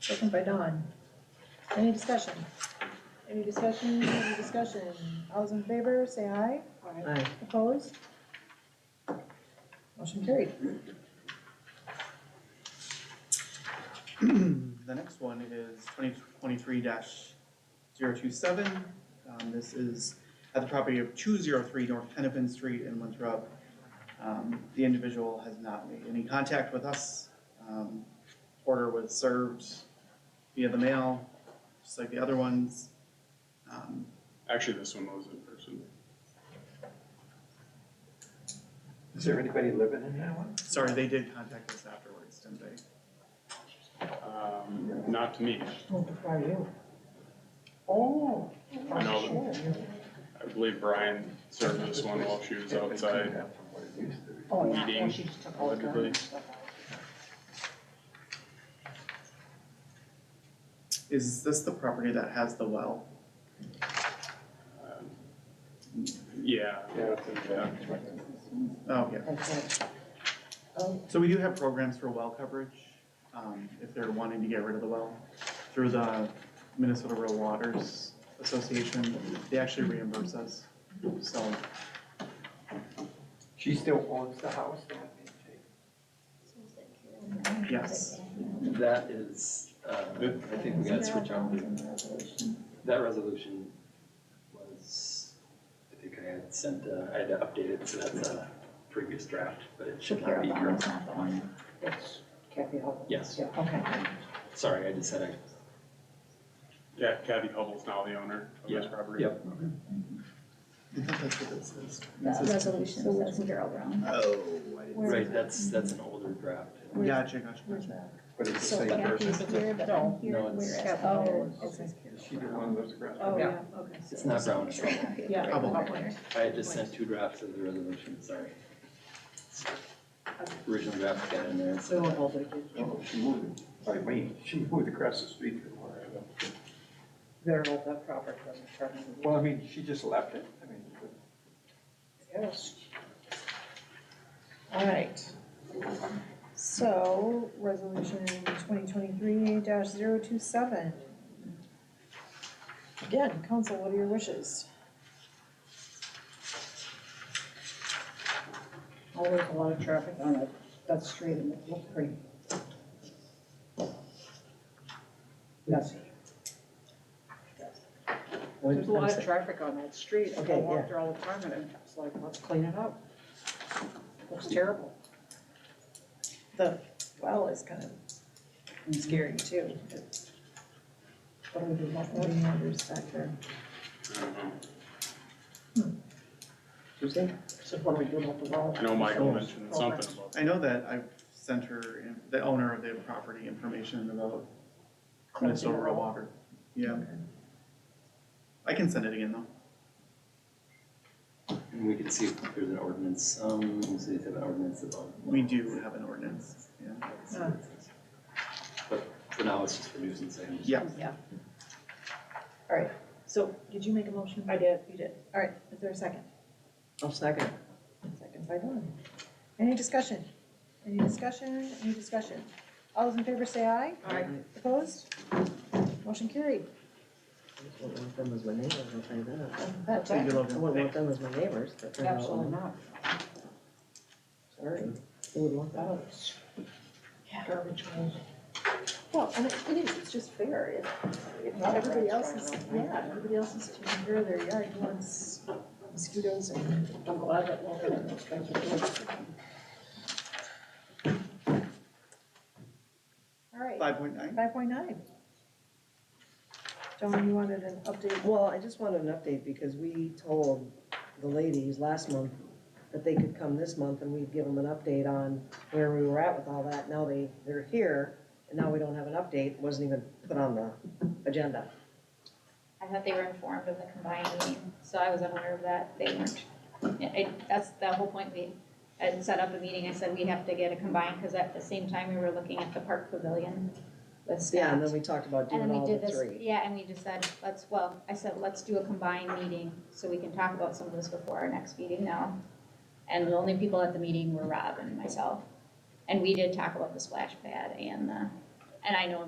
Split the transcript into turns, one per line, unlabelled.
Second by Dawn. Any discussion? Any discussion, any discussion? All's in favor, say aye.
Aye.
Opposed? Motion carried.
The next one is twenty twenty-three 27 Um, this is at the property of two zero three North Hennepin Street in Winthrop. Um, the individual has not made any contact with us. Um, order was served via the mail, just like the other ones. Um,
Actually, this one was in person.
Is there anybody living in that one?
sorry, they did contact us afterwards, didn't they?
Um, Not to me.
Oh, are you? Oh.
I know I believe Brian served this one while she was outside.
Oh, yeah,
Meeting,
well, she just took all the
allegedly.
guns.
Is this the property that has the well?
Um, Yeah,
Yeah, it's in
Yeah.
Oh, yeah.
That's it. Oh,
So we do have programs for well coverage, um, if they're wanting to get rid of the well, through the Minnesota Rural Waters Association, they actually reimburse us. So,
She still owns the house now?
yes,
That is, uh, I think we gotta switch over. That resolution was, I think I had sent, uh, I had to update it, so that's a previous draft, but it should not be current.
it's Kathy Hope.
Yes,
Yeah, okay.
sorry, I just said I,
yeah, Kathy Hubble's now the owner of this
Yeah.
property.
yep.
I think that's what this is. This is-
Resolution, that's Darrell Brown.
Oh, I didn't.
Right, that's, that's an older draft.
Gotcha, gotcha, gotcha.
But it's the
So
same
Kathy's
person.
here, but I'm here,
No, it's-
whereas.
Oh, okay.
Is she the one that lives across?
Oh, yeah, okay.
It's not brown at all.
Yeah.
Hubble.
I had just sent two drafts of the resolution, sorry. Original draft got in there, and
We
so
won't hold it against you.
Oh, she moved, by me, she moved across the street from where I live.
Better hold that proper, doesn't turn into
Well, I mean, she just left it, I mean, but
Yes. All right,
So, resolution twenty twenty-three 27 Again, council, what are your wishes?
always Oh, a lot of traffic on that, that street and it looked pretty messy. There's a lot of traffic on that street, I
Okay,
walk there all the time and it's like, let's clean it up. Looks terrible.
The well is kind of scary too. What are we doing, what are the others back there?
I don't know.
Tuesday? So what are we doing with the wall?
I know Michael mentioned something about
I know that I've sent her, in- the owner of the property, information about Minnesota Rural Water. Yeah. I can send it again, though.
and we can see if there's an ordinance, um, we'll see if they have an ordinance about.
We do have an ordinance, yeah.
But for now, it's just a nuisance item.
Yeah,
So, did you make a motion? I did. You did. All right, is there a second?
I'll second.
Second by Dawn. Any discussion? Any discussion? Any discussion? All those in favor say aye.
Aye.
Opposed? Motion carried.
Wouldn't want them as my neighbors, I'll tell you that.
That,
so you
that-
love
I
it.
wouldn't want them as my neighbors, but they're
Absolutely
all,
not.
sorry, who would want that?
Ouch. Garbage holes.
well, and it it is, it's just fair. If, if everybody else is, yeah, everybody else is taking care of their yard, who wants mosquitoes and.
I'm glad that we're gonna those kinds of things.
All right.
Five point nine?
Five point nine. Dawn, you wanted an update?
Well, I just wanted an update because we told the ladies last month that they could come this month and we'd give them an update on where we were at with all that. Now they, they're here and now we don't have an update, wasn't even put on the agenda.
I thought they were informed of the combined meeting, so I was unaware of that, they weren't. Yeah, I that's the whole point, we had set up a meeting, I said we have to get a combined, because at the same time, we were looking at the park pavilion with
Yeah,
staff.
and then we talked about
And
doing
then
all
we did
the
this,
three.
yeah, and we just said, let's, well, I said, let's do a combined meeting, so we can talk about some of this before our next meeting now. And the only people at the meeting were Rob and myself, and we did talk about the splash pad and the, and I know